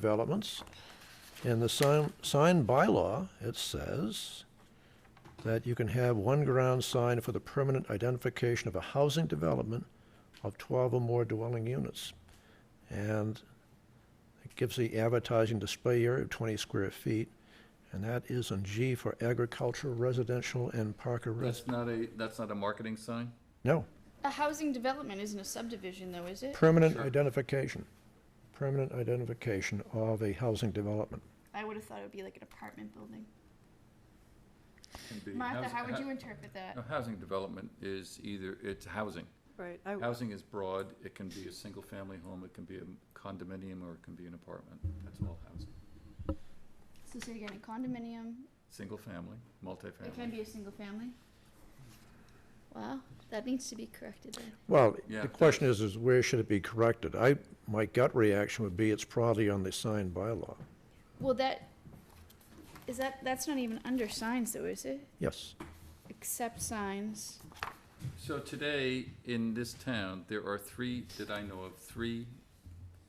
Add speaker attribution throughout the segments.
Speaker 1: developments. In the sign, sign bylaw, it says that you can have one ground sign for the permanent identification of a housing development of twelve or more dwelling units. And it gives the advertising display area of twenty square feet, and that is in G for agricultural, residential, and Parker. res-
Speaker 2: That's not a, that's not a marketing sign?
Speaker 1: No,
Speaker 3: A housing development isn't a subdivision though, is it?
Speaker 1: permanent
Speaker 2: Sure.
Speaker 1: identification, permanent identification of a housing development.
Speaker 3: I would have thought it would be like an apartment building.
Speaker 2: Can be
Speaker 3: Martha,
Speaker 2: housing-
Speaker 3: how would
Speaker 2: ha-
Speaker 3: you interpret that?
Speaker 2: No, housing development is either, it's housing.
Speaker 4: Right, I,
Speaker 2: Housing is broad, it can be a single-family home, it can be a condominium, or it can be an apartment. That's all housing.
Speaker 3: So say again, a condominium,
Speaker 2: Single-family,
Speaker 3: it can
Speaker 2: multifamily.
Speaker 3: be a single family? Wow, that needs to be corrected then.
Speaker 1: Well,
Speaker 2: Yeah,
Speaker 1: the
Speaker 2: it
Speaker 1: question is, is where should it be corrected? I, my gut reaction would be it's probably on the sign bylaw.
Speaker 3: Well, that, is that, that's not even under signs though, is it?
Speaker 1: Yes.
Speaker 3: Except signs.
Speaker 2: So today, in this town, there are three, that I know of, three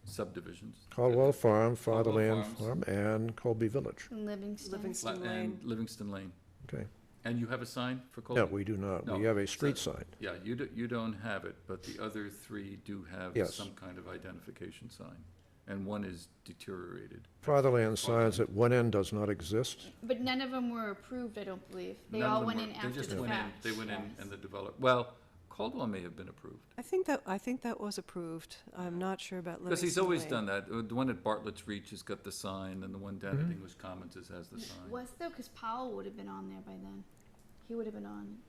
Speaker 2: subdivisions.
Speaker 1: Caldwell Farm, Fatherland
Speaker 2: Farms.
Speaker 1: Farm, and Colby Village.
Speaker 3: In Livingston.
Speaker 4: Livingston.
Speaker 2: La- And
Speaker 4: Lane.
Speaker 2: Livingston Lane.
Speaker 1: Okay.
Speaker 2: And you have a sign for Colby?
Speaker 1: No, we do not. We
Speaker 2: No,
Speaker 1: have a
Speaker 2: it's
Speaker 1: street
Speaker 2: a-
Speaker 1: sign.
Speaker 2: Yeah, you do, you don't have it, but the other three do have
Speaker 1: Yes.
Speaker 2: some kind of identification sign. And one is deteriorated.
Speaker 1: Fatherland signs at one end does not exist.
Speaker 3: But none of them were approved, I don't believe. They
Speaker 2: None of
Speaker 3: all
Speaker 2: them
Speaker 3: went
Speaker 2: were-
Speaker 3: in after
Speaker 2: They
Speaker 3: the fact.
Speaker 2: just went in, they went in
Speaker 3: Yes.
Speaker 2: and the develop, well, Caldwell may have been approved.
Speaker 4: I think that, I think that was approved. I'm not sure about Livingston
Speaker 2: Because he's always
Speaker 4: Lane.
Speaker 2: done that. Uh, The one at Bartlett's Reach has got the sign, and the one down at English Commons is, has the sign.
Speaker 3: Was though, because Powell would have been on there by then. He would have been on.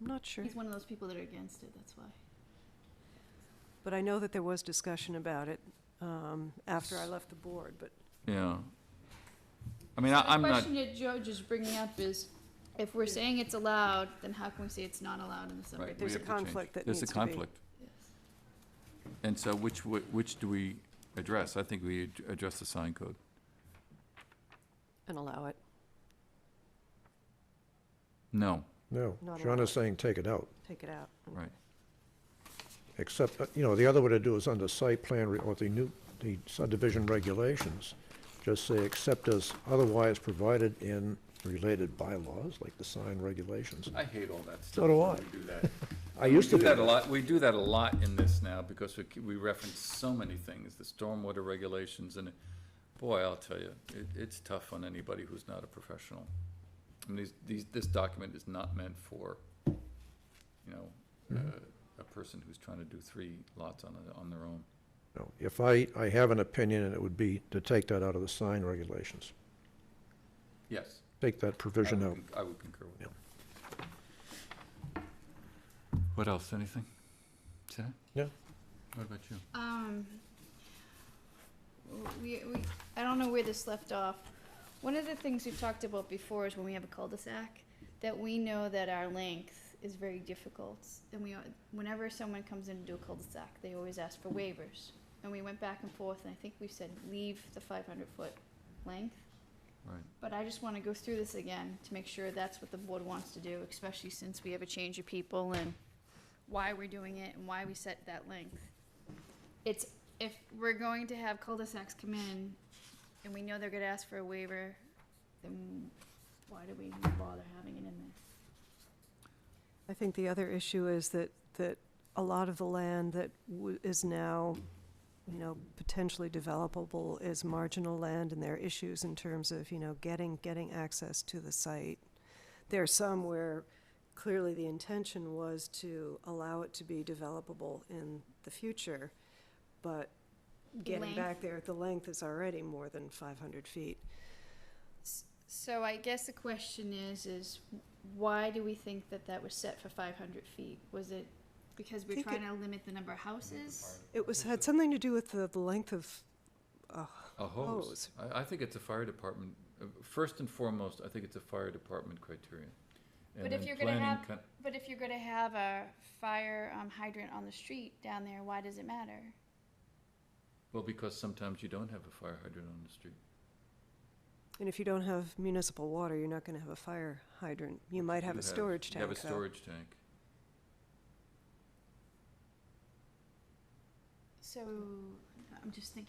Speaker 4: I'm not sure,
Speaker 3: He's one of those people that are against it. That's why.
Speaker 4: but I know that there was discussion about it um, after I left the board, but
Speaker 2: Yeah. I mean, I, I'm
Speaker 3: the
Speaker 2: not,
Speaker 3: question that George is bringing up is, if we're saying it's allowed, then how can we say it's not allowed in the summary?
Speaker 2: right, we
Speaker 4: There's a
Speaker 2: have to change.
Speaker 4: conflict that
Speaker 2: There's a
Speaker 4: needs to be-
Speaker 2: conflict. And so which, w- which do we address? I think we ad- address the sign code.
Speaker 4: and allow it,
Speaker 2: No,
Speaker 1: No.
Speaker 4: Not
Speaker 1: John
Speaker 4: allowed.
Speaker 1: is saying take it out.
Speaker 4: take it out.
Speaker 2: right.
Speaker 1: Except, uh, you know, the other way to do is under site plan re- or the new, the subdivision regulations, just say except as otherwise provided in related bylaws, like the sign regulations.
Speaker 2: I hate all that stuff.
Speaker 1: do
Speaker 2: when
Speaker 1: I.
Speaker 2: We do that.
Speaker 1: I
Speaker 2: We
Speaker 1: used to
Speaker 2: do
Speaker 1: be.
Speaker 2: that a lot, we do that a lot in this now, because we, c- we reference so many things, the stormwater regulations, and boy, I'll tell you, it, it's tough on anybody who's not a professional. And these, these, this document is not meant for, you know,
Speaker 1: Mm-hmm.
Speaker 2: uh, a person who's trying to do three lots on, a- on their own.
Speaker 1: No, If I, I have an opinion, and it would be to take that out of the sign regulations,
Speaker 2: Yes.
Speaker 1: take that
Speaker 2: I
Speaker 1: provision
Speaker 2: would
Speaker 1: out.
Speaker 2: con- I would concur with
Speaker 1: Yeah.
Speaker 2: that. What else, anything? Sarah?
Speaker 1: No.
Speaker 2: What about you?
Speaker 3: Um, w- we, we, I don't know where this left off. One of the things we've talked about before is when we have a cul-de-sac, that we know that our length is very difficult. And we, al- whenever someone comes in to do a cul-de-sac, they always ask for waivers. And we went back and forth, and I think we said, leave the five hundred foot length.
Speaker 2: Right.
Speaker 3: But I just wanna go through this again to make sure that's what the board wants to do, especially since we have a change of people and why we're doing it and why we set that length. It's, if we're going to have cul-de-sacs come in and we know they're gonna ask for a waiver, then why do we even bother having it in there?
Speaker 4: I think the other issue is that, that a lot of the land that w- is now, you know, potentially developable is marginal land, and there are issues in terms of, you know, getting, getting access to the site. There are some where clearly the intention was to allow it to be developable in the future, but getting
Speaker 3: Length.
Speaker 4: back there, the length is already more than five hundred feet.
Speaker 3: So I guess the question is, is why do we think that that was set for five hundred feet? Was it because we're
Speaker 4: Think it-
Speaker 3: trying to limit the number of houses?
Speaker 4: It was, had something to do with the, the length of, uh,
Speaker 2: A hose.
Speaker 4: Hose.
Speaker 2: I, I think it's a fire department, uh, first and foremost, I think it's a fire department criterion. And
Speaker 3: But if
Speaker 2: then
Speaker 3: you're gonna
Speaker 2: planning
Speaker 3: have-
Speaker 2: con-
Speaker 3: But if you're gonna have a fire um, hydrant on the street down there, why does it matter?
Speaker 2: Well, because sometimes you don't have a fire hydrant on the street.
Speaker 4: And if you don't have municipal water, you're not gonna have a fire hydrant. You might have
Speaker 2: You
Speaker 4: a storage tank,
Speaker 2: You have a
Speaker 4: though.
Speaker 2: storage tank.
Speaker 3: So, I'm just thinking